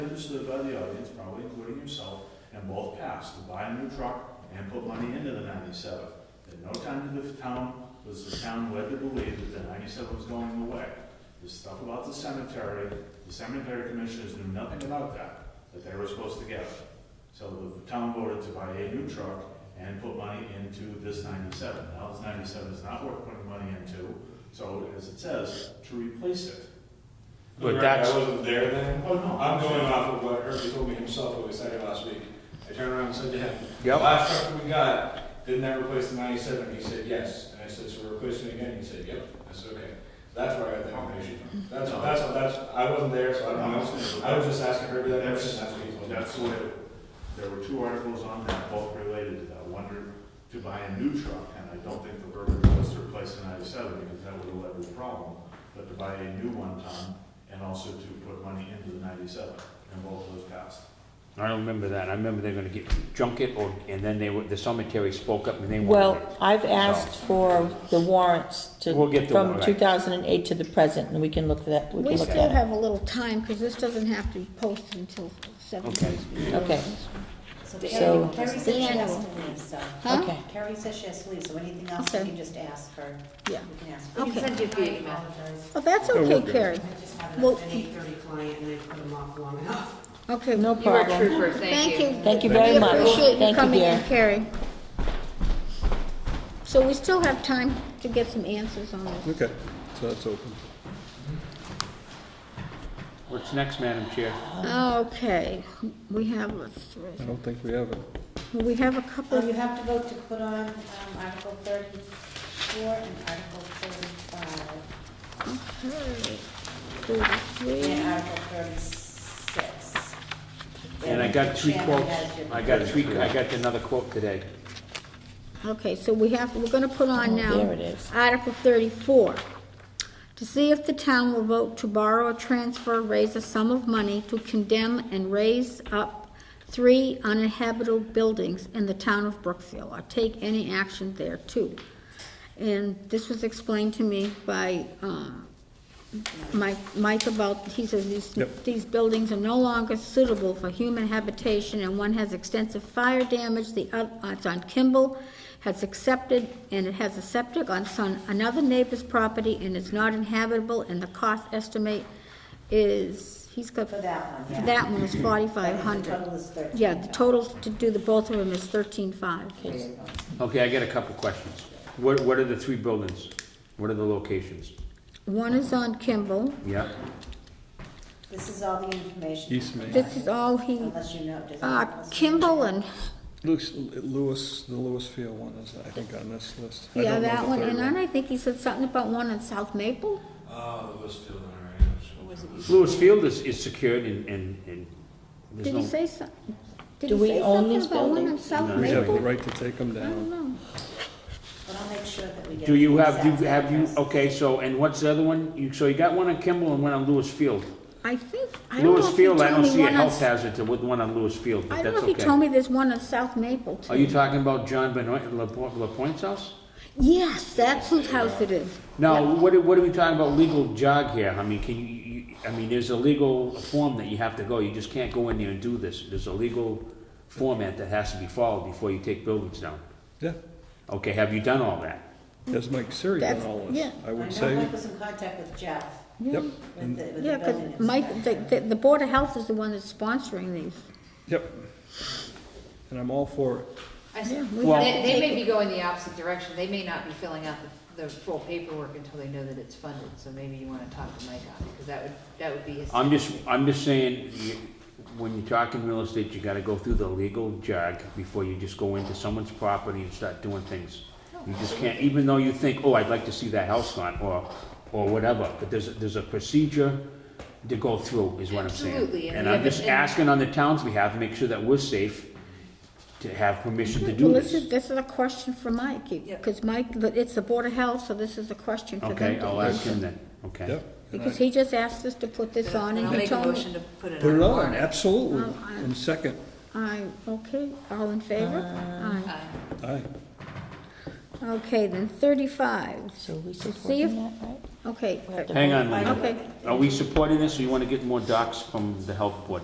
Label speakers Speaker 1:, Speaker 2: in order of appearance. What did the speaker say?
Speaker 1: understood by the audience, probably including yourself, and both passed, to buy a new truck and put money into the ninety-seven. At no time did the town, was the town led to believe that the ninety-seven was going away. This stuff about the cemetery, the cemetery commissioners knew nothing about that, that they were supposed to get. So the town voted to buy a new truck and put money into this ninety-seven. Now, this ninety-seven is not worth putting money into, so as it says, to replace it.
Speaker 2: For the record,
Speaker 3: that's-
Speaker 2: I wasn't there then.
Speaker 1: Oh, no.
Speaker 2: I'm going off of what Herbie told me himself what we said last week. I turned around and said to him,
Speaker 3: Yep.
Speaker 2: "The last truck we got, didn't that replace the ninety-seven? He said, yes. And I said, so we're replacing it again? He said, yep. I said, okay. That's where I got that information from. That's,
Speaker 1: No.
Speaker 2: that's, that's, I wasn't there, so I don't know. I was
Speaker 1: That's,
Speaker 2: just asking Herbie that question, that's what he told me.
Speaker 1: that's what, there were two articles on that, both related to that. One to buy a new truck, and I don't think the verbiage was to replace the ninety-seven, because that would have led to the problem, but to buy a new one ton, and also to put money into the ninety-seven, and both of those passed.
Speaker 3: I don't remember that. I remember they're gonna get, junk it, or, and then they were, the cemetery spoke up and they wanted
Speaker 4: Well,
Speaker 3: it.
Speaker 4: I've asked for the warrants to,
Speaker 3: We'll get the
Speaker 4: from
Speaker 3: warrant.
Speaker 4: 2008 to the present, and we can look for that, we
Speaker 5: We
Speaker 4: can look
Speaker 5: still
Speaker 4: at it.
Speaker 5: have a little time, because this doesn't have to be posted until seven
Speaker 3: Okay.
Speaker 5: days. before.
Speaker 4: Okay,
Speaker 6: So
Speaker 4: So-
Speaker 6: Carrie, Carrie says she has to leave, so.
Speaker 5: Huh?
Speaker 4: okay.
Speaker 6: Carrie says she has to leave, so anything else, you
Speaker 5: Okay.
Speaker 6: can just ask her.
Speaker 5: Yeah. Oh.
Speaker 6: You can ask.
Speaker 5: We can Okay. send
Speaker 6: you via email. I apologize.
Speaker 5: Oh, that's
Speaker 3: Yeah, we'll
Speaker 5: okay,
Speaker 3: do.
Speaker 5: Carrie.
Speaker 6: I just had
Speaker 5: Well-
Speaker 6: an eight thirty client and I put him off long enough.
Speaker 5: Okay.
Speaker 4: No
Speaker 7: You are a
Speaker 4: problem.
Speaker 7: trooper, thank you.
Speaker 4: Thank you very much.
Speaker 5: We appreciate you
Speaker 4: Thank you,
Speaker 5: coming in,
Speaker 4: dear.
Speaker 5: Carrie. So we still have time to get some answers on this.
Speaker 8: Okay, so that's open.
Speaker 3: What's next, Madam Chair?
Speaker 5: Okay, we have, a
Speaker 8: I
Speaker 5: thr-
Speaker 8: don't think we have it.
Speaker 5: we have a
Speaker 6: Well,
Speaker 5: couple,
Speaker 6: Oh, you have to vote to put on um, Article thirty-four and Article thirty-five
Speaker 5: okay, thirty-three.
Speaker 6: and Article thirty-six.
Speaker 3: And I got three
Speaker 6: Shannon
Speaker 3: quotes.
Speaker 6: has your-
Speaker 3: I got three, I got another quote today.
Speaker 5: Okay, so we have, we're gonna put on now.
Speaker 4: Oh, There it is.
Speaker 5: Article thirty-four, to see if the town will vote to borrow or transfer, raise a sum of money to condemn and raise up three uninhabitable buildings in the town of Brookfield, or take any action thereto. And this was explained to me by, um, Mike, Mike about, he says these,
Speaker 8: Yep.
Speaker 5: these buildings are no longer suitable for human habitation, and one has extensive fire damage, the, oth- uh, it's on Kimball, has accepted, and it has a septic on some, another neighbor's property, and it's not inhabitable, and the cost estimate is, he's got.
Speaker 6: For that one, yeah.
Speaker 5: For that one is forty-five
Speaker 6: The
Speaker 5: hundred.
Speaker 6: total is thirteen.
Speaker 5: Yeah, the total to do the both of them is thirteen-five.
Speaker 3: Okay, I got a couple questions. What, what are the three buildings? What are the locations?
Speaker 5: One is on Kimball,
Speaker 3: Yeah,
Speaker 6: This is all the information.
Speaker 8: East Main.
Speaker 5: this is all he,
Speaker 6: Unless you know. does
Speaker 5: uh,
Speaker 6: anyone else know?
Speaker 5: Kimball and
Speaker 8: Lewis, Lewis, the Lewisfield one is, I think, on this list. I
Speaker 5: Yeah,
Speaker 8: don't know
Speaker 5: that
Speaker 8: the
Speaker 5: one,
Speaker 8: third
Speaker 5: and then I think he said something about one in South Maple?
Speaker 2: Oh, it was still all right. I'm sure.
Speaker 3: Lewis Field is, is secured and, and, and there's
Speaker 5: Did he
Speaker 3: no-
Speaker 5: say some, did
Speaker 4: Do
Speaker 5: he
Speaker 4: we
Speaker 5: say
Speaker 4: own
Speaker 5: something
Speaker 4: these
Speaker 5: about one in
Speaker 4: buildings?
Speaker 5: South
Speaker 3: No.
Speaker 8: We have the
Speaker 5: Maple?
Speaker 8: right to take them
Speaker 5: I don't
Speaker 8: down.
Speaker 5: know.
Speaker 6: But I'll make sure that we get.
Speaker 3: Do you
Speaker 6: the
Speaker 3: have, you,
Speaker 6: exact
Speaker 3: have you, oh,
Speaker 6: address.
Speaker 3: okay, so, and what's the other one? You, so you got one on Kimball and one on Lewis Field.
Speaker 5: I think, I don't know
Speaker 3: Lewis
Speaker 5: if he
Speaker 3: Field, I don't
Speaker 5: told me
Speaker 3: see a
Speaker 5: one on,
Speaker 3: health
Speaker 5: s-
Speaker 3: hazard to, with one on Lewis Field,
Speaker 5: I
Speaker 3: but
Speaker 5: don't
Speaker 3: that's
Speaker 5: know if he told
Speaker 3: okay.
Speaker 5: me there's one in South Maple
Speaker 3: Are you
Speaker 5: too.
Speaker 3: talking about John Benoit, Lapo- Lapointe's house?
Speaker 5: Yes, that's whose house it is.
Speaker 3: Now, what are, what are we talking about legal jog here? I mean, can you, you, I mean, there's a legal form that you have to go, you just can't go in there and do this. There's a legal format that has to be followed before you take buildings down.
Speaker 5: Mm-hmm.
Speaker 8: Yeah,
Speaker 3: Okay, have you done all that?
Speaker 8: there's Mike Siri on
Speaker 5: That's-
Speaker 8: all this,
Speaker 5: yeah.
Speaker 8: I
Speaker 6: I
Speaker 8: would
Speaker 6: know
Speaker 8: say.
Speaker 6: Mike was in contact with Jeff,
Speaker 8: Yep,
Speaker 6: with the, with
Speaker 5: Yeah,
Speaker 6: the
Speaker 5: 'cause
Speaker 6: building.
Speaker 5: Mike, the, the, the Board of Health is the one that's sponsoring these.
Speaker 8: yep. And I'm all for it.
Speaker 7: I s-
Speaker 5: Yeah,
Speaker 7: They,
Speaker 5: we have to take
Speaker 7: they may be going the opposite direction, they may not be filling out the, the full paperwork until they know that it's funded, so maybe you wanna talk to Mike on it, cause that would, that would be his.
Speaker 3: I'm just, I'm just saying, you- when you're talking real estate, you gotta go through the legal jog before you just go into someone's property and start doing things. You just can't, even though you think, oh, I'd like to see that house gone, or, or whatever, but there's, there's a procedure to go through, is what I'm saying.
Speaker 7: Absolutely, and
Speaker 3: And
Speaker 7: we
Speaker 3: I'm
Speaker 7: have
Speaker 3: just
Speaker 7: an-
Speaker 3: asking on the town's behalf, to make sure that we're safe, to have permission to do
Speaker 5: Well, this
Speaker 3: this.
Speaker 5: is, this is a question for Mike, because Mike, it's the Board of Health, so this is a question for them to
Speaker 3: Okay,
Speaker 5: answer.
Speaker 3: I'll ask him then, okay?
Speaker 8: Yep. and
Speaker 5: Because
Speaker 8: I-
Speaker 5: he just asked us to put this on,
Speaker 7: I'll
Speaker 5: and he
Speaker 7: make a
Speaker 5: told me.
Speaker 7: motion to put it
Speaker 8: Put
Speaker 7: on
Speaker 8: it
Speaker 7: the
Speaker 8: on,
Speaker 7: warrant.
Speaker 8: absolutely.
Speaker 5: Well, I-
Speaker 8: And second,
Speaker 5: Aye, okay, all in favor? Aye.
Speaker 7: Uh,
Speaker 8: aye.
Speaker 5: Okay, then thirty-five.
Speaker 4: So we
Speaker 5: To see
Speaker 4: supporting
Speaker 5: if-
Speaker 4: that, right?
Speaker 5: Okay,
Speaker 4: We have to
Speaker 3: Hang
Speaker 4: vote.
Speaker 3: on one minute.
Speaker 5: okay.
Speaker 3: Are we supporting this, or you wanna get more docs from the health board?